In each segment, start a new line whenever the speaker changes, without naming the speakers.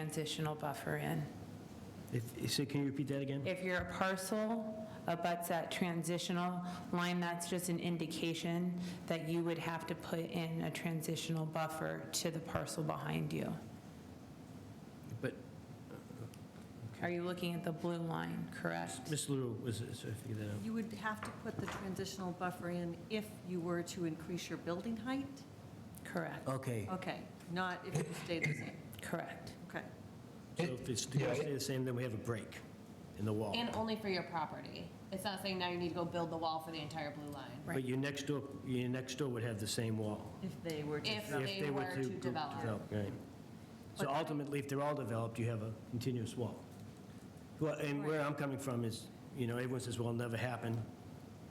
transitional buffer in.
If- So can you repeat that again?
If you're a parcel abuts that transitional line, that's just an indication that you would have to put in a transitional buffer to the parcel behind you.
But
Are you looking at the blue line, correct?
Ms. Lou was, so I figured that out.
You would have to put the transitional buffer in if you were to increase your building height?
Correct,
Okay,
Okay, not if it stayed the same,
correct.
okay.
so if it's if it's the same, then we have a break in the wall.
And only for your property. It's not saying now you need to go build the wall for the entire blue line.
But your next door, your next door would have the same wall.
If they were to.
If
If
they
were
were to
go-
develop.
Right. So ultimately, if they're all developed, you have a continuous wall. Well, and where I'm coming from is, you know, everyone says, well, it'll never happen.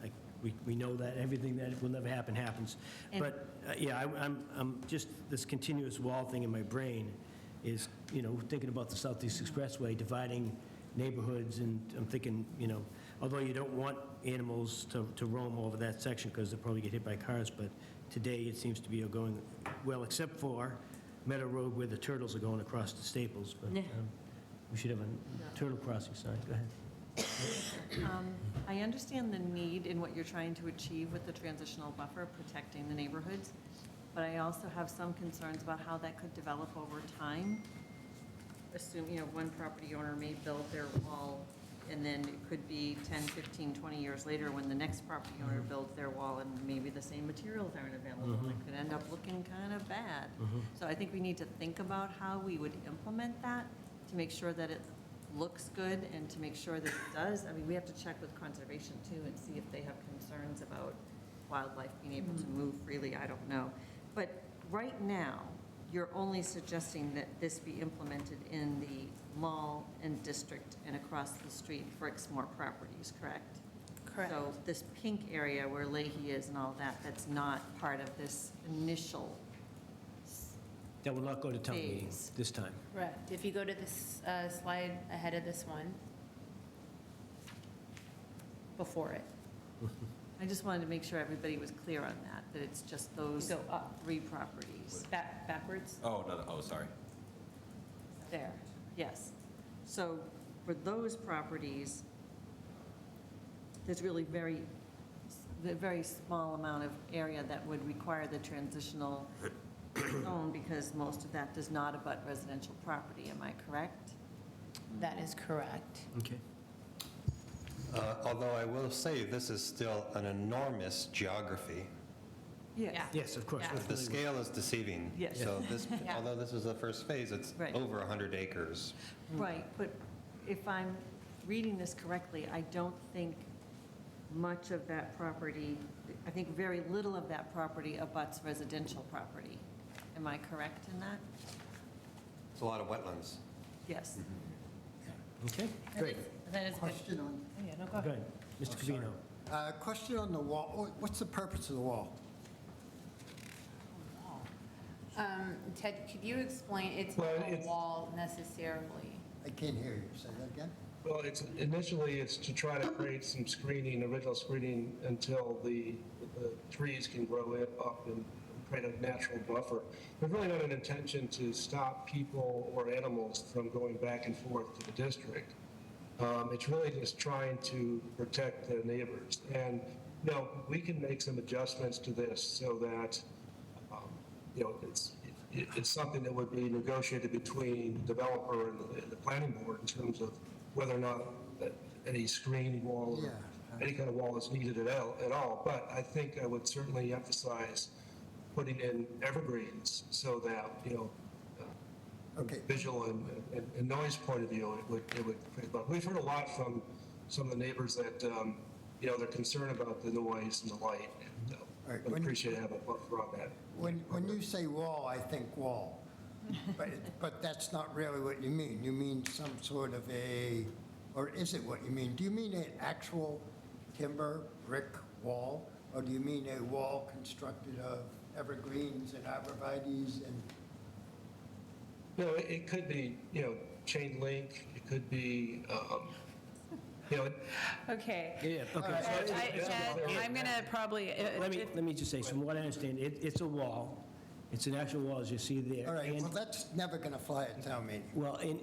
Like, we, we know that, everything that will never happen happens.
And-
But, uh, yeah, I- I'm, I'm, just this continuous wall thing in my brain is, you know, thinking about the Southeast Expressway dividing neighborhoods, and I'm thinking, you know, although you don't want animals to, to roam over that section because they'll probably get hit by cars, but today it seems to be going, well, except for Meadow Road where the turtles are going across to Staples, but um, we should have a turtle crossing sign, go ahead.
Um, I understand the need in what you're trying to achieve with the transitional buffer, protecting the neighborhoods, but I also have some concerns about how that could develop over time. Assume, you know, one property owner may build their wall, and then it could be 10, 15, 20 years later when the next property owner builds their wall, and maybe the same materials aren't available, and it could end up looking kind of bad. So I think we need to think about how we would implement that to make sure that it looks good and to make sure that it does. I mean, we have to check with conservation too and see if they have concerns about wildlife being able to move freely, I don't know. But right now, you're only suggesting that this be implemented in the mall and district and across the street for Exmoor properties, correct?
Correct.
So this pink area where Leahy is and all that, that's not part of this initial,
That will not go to town meeting
Please.
this time.
Correct. If you go to this uh, slide ahead of this one, before it,
I just wanted to make sure everybody was clear on that, that it's just those
go up,
three properties.
back, backwards,
Oh, no, no, oh, sorry.
there.
Yes. So for those properties, there's really very, the very small amount of area that would require the transitional zone because most of that does not abut residential property, am I correct?
That is correct.
Okay.
Uh, Although I will say, this is still an enormous geography.
Yeah.
Yes, of course.
Yeah.
we're
The
familiar with-
scale is deceiving.
Yes.
So this,
Yeah.
although this is the first phase, it's
Right.
over 100 acres.
Right, but if I'm reading this correctly, I don't think much of that property, I think very little of that property abuts residential property. Am I correct in that?
It's a lot of wetlands.
Yes.
Okay, great.
That is good.
Question on,
Yeah, no,
Go ahead, Mr. Covino.
uh, question on the wall, What- what's the purpose of the wall?
Um, Ted, could you explain, it's not
Well,
a
it's-
wall necessarily.
I can't hear you, say that again?
Well, it's, initially, it's to try to create some screening, original screening, until the, the trees can grow it up and create a natural buffer. There's really not an intention to stop people or animals from going back and forth to the district. Um, It's really just trying to protect their neighbors. And, you know, we can make some adjustments to this so that, um, you know, it's, it- it's something that would be negotiated between the developer and the, and the planning board in terms of whether or not that any screen wall or
Yeah.
any kind of wall is needed at all, at all. But I think I would certainly emphasize putting in evergreens so that, you know, uh,
Okay.
visual and, and- and noise point of view, it would, it would, create- but we've heard a lot from some of the neighbors that, um, you know, they're concerned about the noise and the light, and uh,
All right,
would
when-
appreciate to have a buffer on that.
When, when you say wall, I think wall. But, but that's not really what you mean. You mean some sort of a, or is it what you mean? Do you mean an actual timber brick wall? Or do you mean a wall constructed of evergreens and arborvitae's and,
No, it, it could be, you know, chain link, it could be, um, you know,
Okay.
Yeah, okay. so it's-
Ted, I'm going to probably,
Let me, let me just say, so from what I understand, it, it's a wall. It's an actual wall, as you see there.
All right,
and-
well, that's never going to fly at town meeting.
Well, and,